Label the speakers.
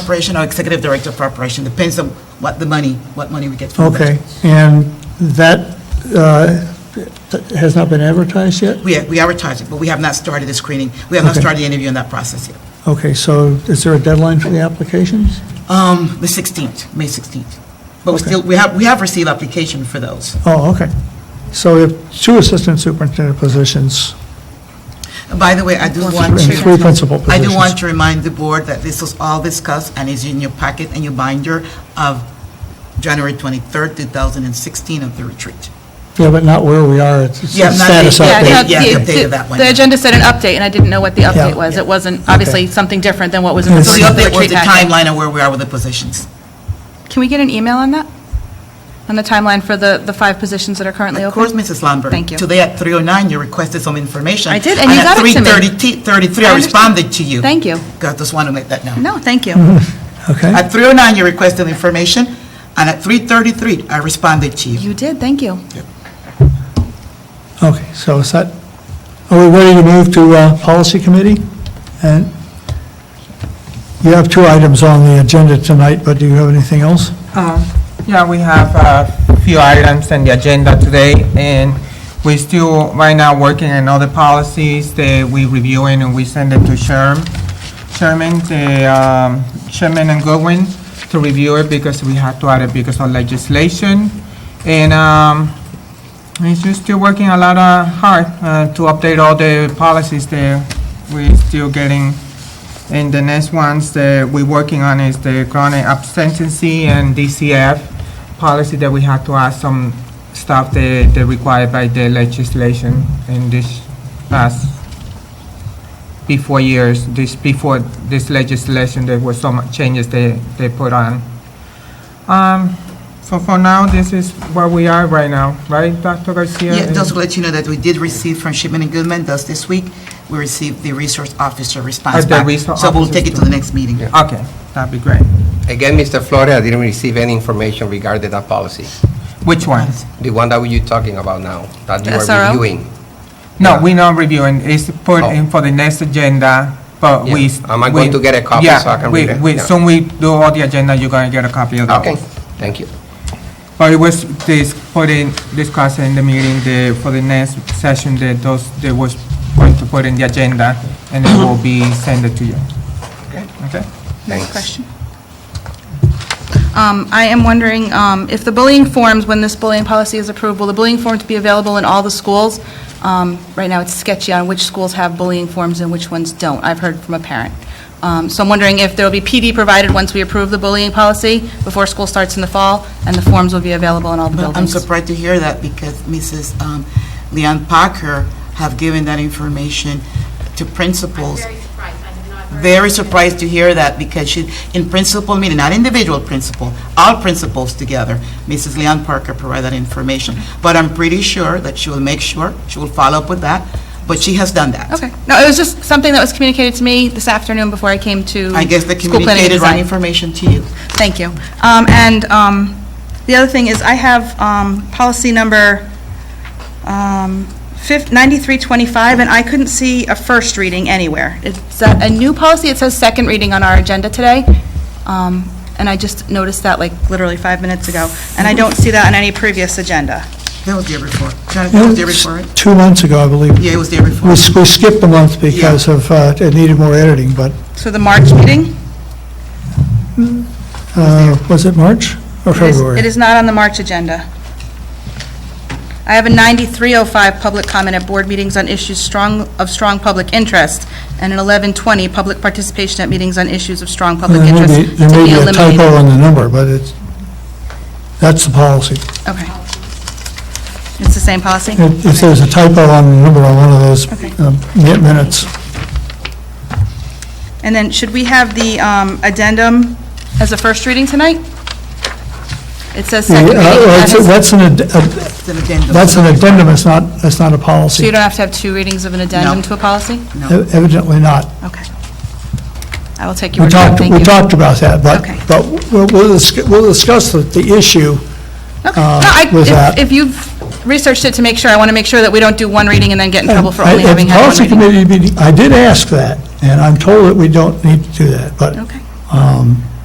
Speaker 1: operation or executive director for operation, depends on what the money, what money we get from the budget.
Speaker 2: Okay, and that uh, has not been advertised yet?
Speaker 1: We, we advertise it, but we have not started the screening, we have not
Speaker 2: Okay.
Speaker 1: started the interview in that process yet.
Speaker 2: Okay, so is there a deadline for the applications?
Speaker 1: Um, the 16th, May 16th. But we
Speaker 2: Okay.
Speaker 1: still, we have, we have received application for those.
Speaker 2: Oh, okay. So we have two assistant superintendent positions
Speaker 1: And By the way, I do want
Speaker 2: and
Speaker 1: to.
Speaker 2: three principal
Speaker 1: I
Speaker 2: positions.
Speaker 1: do want to remind the board that this was all discussed and is in your packet and your binder of January 23rd, 2016 of the retreat.
Speaker 2: Yeah, but not where we are, it's it's
Speaker 1: Yeah,
Speaker 2: a
Speaker 1: not
Speaker 2: status
Speaker 1: the-
Speaker 3: Yeah,
Speaker 2: update.
Speaker 3: no,
Speaker 1: Yeah,
Speaker 3: the-
Speaker 1: the update of that
Speaker 3: the-
Speaker 1: one.
Speaker 3: The agenda said an update, and I didn't know what the update
Speaker 2: Yeah.
Speaker 3: was. It wasn't,
Speaker 2: Okay.
Speaker 3: obviously, something different than what was in
Speaker 2: Yes.
Speaker 1: So the
Speaker 2: Yes.
Speaker 3: the
Speaker 1: update was
Speaker 3: retreat
Speaker 1: the
Speaker 3: packet.
Speaker 1: timeline of where we are with the positions.
Speaker 3: Can we get an email on that? On the timeline for the, the five positions that are currently
Speaker 1: Of course,
Speaker 3: open?
Speaker 1: Mrs. Lambert.
Speaker 3: Thank you.
Speaker 1: Today at 3:09, you requested some information.
Speaker 3: I did, and you got it to me.
Speaker 1: at 3:33,
Speaker 3: I
Speaker 1: I
Speaker 3: understand.
Speaker 1: responded to you.
Speaker 3: Thank you.
Speaker 1: I just want to make that known.
Speaker 3: No, thank you.
Speaker 2: Okay,
Speaker 1: At 3:09, you requested information, and at 3:33, I responded to you.
Speaker 3: You did, thank you.
Speaker 2: okay, so is that, are we ready to move to uh, policy committee? And you have two items on the agenda tonight, but do you have anything else?
Speaker 4: Um, Yeah, we have a few items on the agenda today, and we're still, right now, working on other policies that we reviewing, and we send it to Sherm, Sherman, the, um, Sherman and Goodwin to review it because we have to add it because of legislation. And, um, it's just still working a lot uh, hard uh, to update all the policies that we're still getting. And the next ones that we're working on is the chronic absenteeism and DCF policy that we have to add some stuff that that required by the legislation in this past, before years, this, before this legislation, there were some changes they, they put on. Um, So for now, this is where we are right now, right, Dr. Garcia?
Speaker 1: Yeah, just to let you know that we did receive from Shipman and Goodman just this week, we received the resource officer response back.
Speaker 4: the resource
Speaker 1: So we'll
Speaker 4: officer's
Speaker 1: take it to the next meeting.
Speaker 4: Okay, that'd be great.
Speaker 5: Again, Mr. Flores, I didn't receive any information regarding that policy,
Speaker 4: Which ones?
Speaker 5: the one that you're talking about now, that you
Speaker 3: The SRO?
Speaker 5: are reviewing.
Speaker 4: No, we're not reviewing, it's put in for the next agenda, but we...
Speaker 5: Oh. Yeah. Am I going
Speaker 4: we-
Speaker 5: to get a copy so I can read it?
Speaker 4: Yeah, we- we,
Speaker 5: Yeah.
Speaker 4: soon we do all the agenda, you're gonna get a copy of that
Speaker 5: Okay,
Speaker 4: one.
Speaker 5: thank you.
Speaker 4: But it was this, put in, discussed in the meeting, the, for the next session, that those, that was going to put in the agenda, and it will be sent it to you. Okay?
Speaker 3: Next
Speaker 5: Thanks.
Speaker 3: question. Um, I am wondering um, if the bullying forms, when this bullying policy is approved, will the bullying forms be available in all the schools? Um, Right now, it's sketchy on which schools have bullying forms and which ones don't. I've heard from a parent. Um, So I'm wondering if there will be PD provided once we approve the bullying policy before school starts in the fall, and the forms will be available in all the
Speaker 1: Well, Uh, I'm
Speaker 3: buildings.
Speaker 1: surprised to hear that because Mrs. um, Leon Parker have given that information to
Speaker 6: I'm
Speaker 1: principals.
Speaker 6: very surprised, I have not heard.
Speaker 1: Very surprised to hear that because she, in principal meeting, not individual principal, all principals together, Mrs. Leon Parker provided that information. But I'm pretty sure that she will make sure, she will follow up with that, but she has done that.
Speaker 3: Okay. No, it was just something that was communicated to me this afternoon before I came to
Speaker 1: I guess they
Speaker 3: school planning and
Speaker 1: communicated right
Speaker 3: design.
Speaker 1: information to you.
Speaker 3: Thank you. Um, And um, the other thing is, I have um, policy number um, fif- 9325, and I couldn't see a first reading anywhere. It's a a new policy, it says second reading on our agenda today, Um, and I just noticed that like literally five minutes ago, and I don't see that on any previous agenda.
Speaker 1: That was there before. Jonathan, that was there before, right?
Speaker 2: Two months ago, I believe.
Speaker 1: Yeah, it was there
Speaker 2: We
Speaker 1: before.
Speaker 2: we skipped a month because of, uh, it needed more editing, but,
Speaker 3: So the March meeting?
Speaker 2: uh, was it March or
Speaker 3: It is-
Speaker 2: February?
Speaker 3: It is not on the March agenda. I have a 9305 public comment at board meetings on issues strong, of strong public interest, and an 1120 public participation at meetings on issues of strong
Speaker 2: There
Speaker 3: public
Speaker 2: may
Speaker 3: interest.
Speaker 2: be- there
Speaker 3: to
Speaker 2: Uh, may
Speaker 3: be
Speaker 2: be a
Speaker 3: eliminated.
Speaker 2: typo on the number, but it's, that's the policy.
Speaker 3: Okay. It's the same policy?
Speaker 2: If if there's a typo on the number on one of those um, mi- minutes,
Speaker 3: And then, should we have the um, addendum as a first reading tonight? It says
Speaker 2: the, uh,
Speaker 3: second reading.
Speaker 2: well, it's-
Speaker 3: So
Speaker 2: that's an, ad- ad-
Speaker 1: It's an addendum.
Speaker 2: that's an addendum, it's not, it's not a policy.
Speaker 3: you don't have to have two readings of an addendum to a policy?
Speaker 2: Ev- Evidently not.
Speaker 3: Okay. I will take
Speaker 2: We
Speaker 3: your word for it.
Speaker 2: talked,
Speaker 3: Thank
Speaker 2: we
Speaker 3: you.
Speaker 2: talked about that, but,
Speaker 3: Okay.
Speaker 2: but we'll, we'll discuss- we'll discuss the, the issue.
Speaker 3: Okay.
Speaker 2: uh,
Speaker 3: No, I-
Speaker 2: with
Speaker 3: if-
Speaker 2: that.
Speaker 3: If you've researched it to make sure, I want to make sure that we don't do one reading and then get in trouble for only
Speaker 2: At- at
Speaker 3: having had one
Speaker 2: policy
Speaker 3: reading.
Speaker 2: committee meeting, I did ask that, and I'm told that we don't need to do that, but
Speaker 3: Okay.
Speaker 2: um,